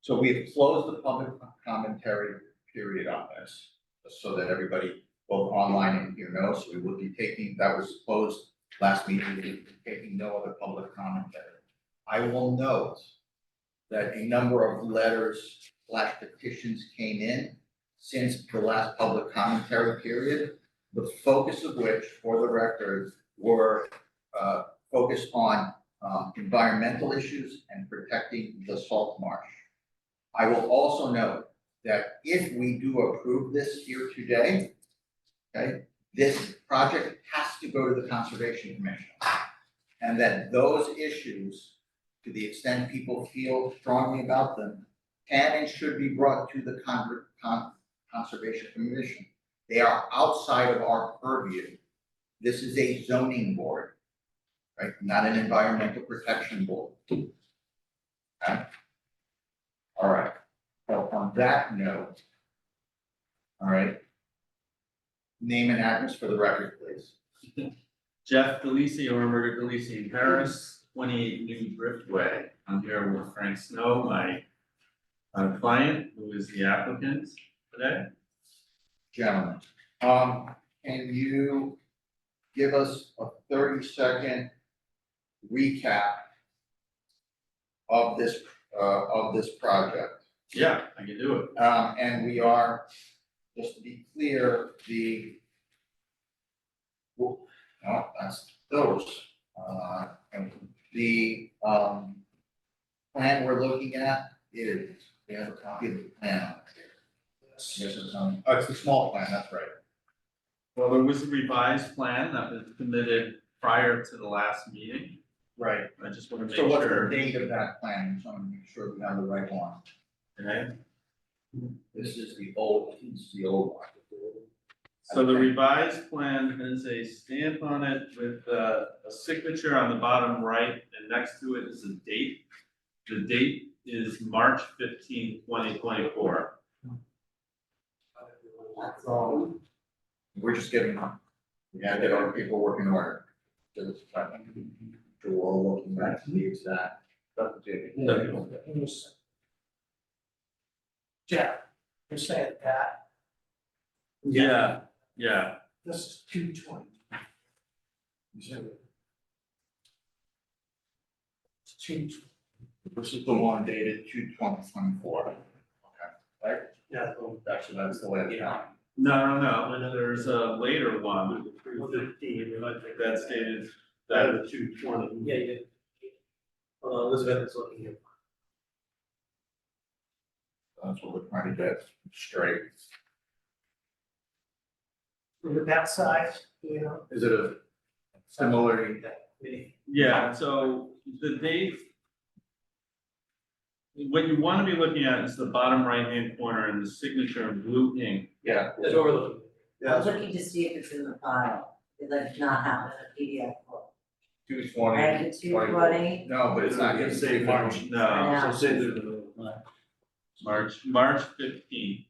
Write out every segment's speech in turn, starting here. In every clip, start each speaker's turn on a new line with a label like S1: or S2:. S1: So we have closed the public commentary period on this, so that everybody, both online and here knows, we will be taking, that was closed last meeting, we will be taking no other public commentary. I will note that a number of letters slash petitions came in since the last public commentary period, the focus of which, for the record, were uh focused on um environmental issues and protecting the salt marsh. I will also note that if we do approve this here today, okay, this project has to go to the Conservation Commission. And that those issues, to the extent people feel strongly about them, can and should be brought to the Con- Con- Conservation Commission. They are outside of our purview. This is a zoning board, right? Not an environmental protection board. All right, so on that note. All right. Name and address for the record, please.
S2: Jeff Delisi, or Roberta Delisi in Paris, twenty-eight New Driftway. I'm here with Frank Snow, my uh, client, who is the applicant today.
S1: gentlemen. Um, can you give us a thirty second recap of this, uh, of this project?
S2: Yeah, I can do it.
S1: Um, and we are, just to be clear, the well, no, that's those, uh, and the, um, plan we're looking at is, we have a copy of the plan. Yes, it's on, oh, it's the small plan, that's right.
S2: Well, there was a revised plan that was submitted prior to the last meeting.
S1: Right.
S2: I just want to make
S1: So what's the
S2: sure,
S1: date of that plan, so I'm make sure we have the right one.
S2: okay?
S1: This is the old, this is the old one.
S2: So the revised plan has a stamp on it with uh, a signature on the bottom right, and next to it is a date. The date is March 15, 2024.
S1: We're just getting, we gotta get our people working order. So it's trying to, we're all looking back to the exact.
S2: No.
S3: Jeff, you're saying that
S2: Yeah, yeah,
S3: this is two twenty. It's two, tw-
S1: This is the one dated two twenty twenty four. Okay. Right?
S3: yeah,
S1: Actually, that's the way it's now.
S2: no, no, no, there's a later one
S4: Three fifteen, and I think
S2: that's dated,
S4: that
S2: that,
S4: is two twenty.
S3: yeah, yeah,
S4: Uh, Elizabeth is looking here.
S1: That's what we're trying to get straight.
S3: With that size, you know,
S1: Is it a similar?
S3: we-
S2: yeah, so the date. What you wanna be looking at is the bottom right-hand corner and the signature in blue ink.
S1: Yeah.
S4: That's what we're looking.
S5: I'm looking to see if it's in the file, if that's not out in the PDF book.
S1: Two
S5: I
S1: twenty.
S5: have the two twenty,
S1: No, but it's not gonna say March.
S2: No,
S5: Yeah.
S4: So say the.
S2: March, March fifteenth.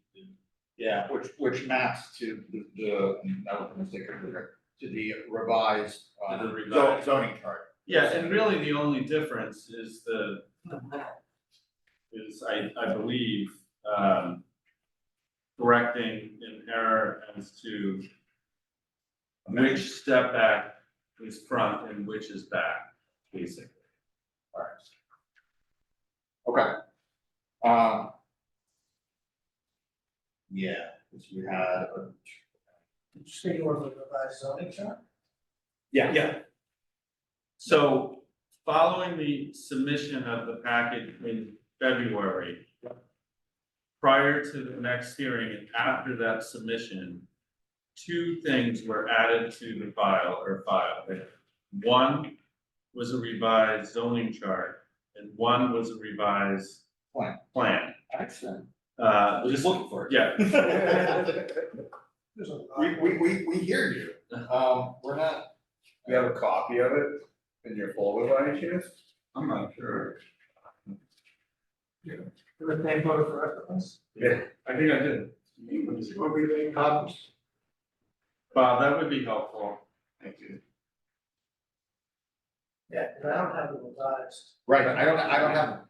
S1: Yeah, which, which maps to the, the, that was a mistake earlier, to the revised, uh,
S2: To the
S1: zo-
S2: revised.
S1: zoning chart.
S2: Yeah, and really the only difference is the, is I, I believe, um, correcting an error as to which step back is front and which is back, basically.
S1: Okay. Um. Yeah, because we had, a-
S3: did you say you were looking at that zoning chart?
S2: Yeah. Yeah. So following the submission of the packet in February. Prior to the next hearing and after that submission, two things were added to the file or file. One was a revised zoning chart and one was a revised.
S1: Plan.
S2: Plan,
S1: excellent.
S2: uh,
S1: Just
S2: just,
S1: looking for it.
S2: yeah,
S3: There's a lot.
S1: We, we, we, we hear you. Um, we're not. We have a copy of it in your folder by any chance?
S2: I'm not sure,
S3: With the name voter for reference.
S2: I think I did.
S3: What we made copies.
S2: Bob, that would be helpful.
S1: Thank you.
S3: Yeah, and I don't have the revised.
S1: Right, I don't, I don't have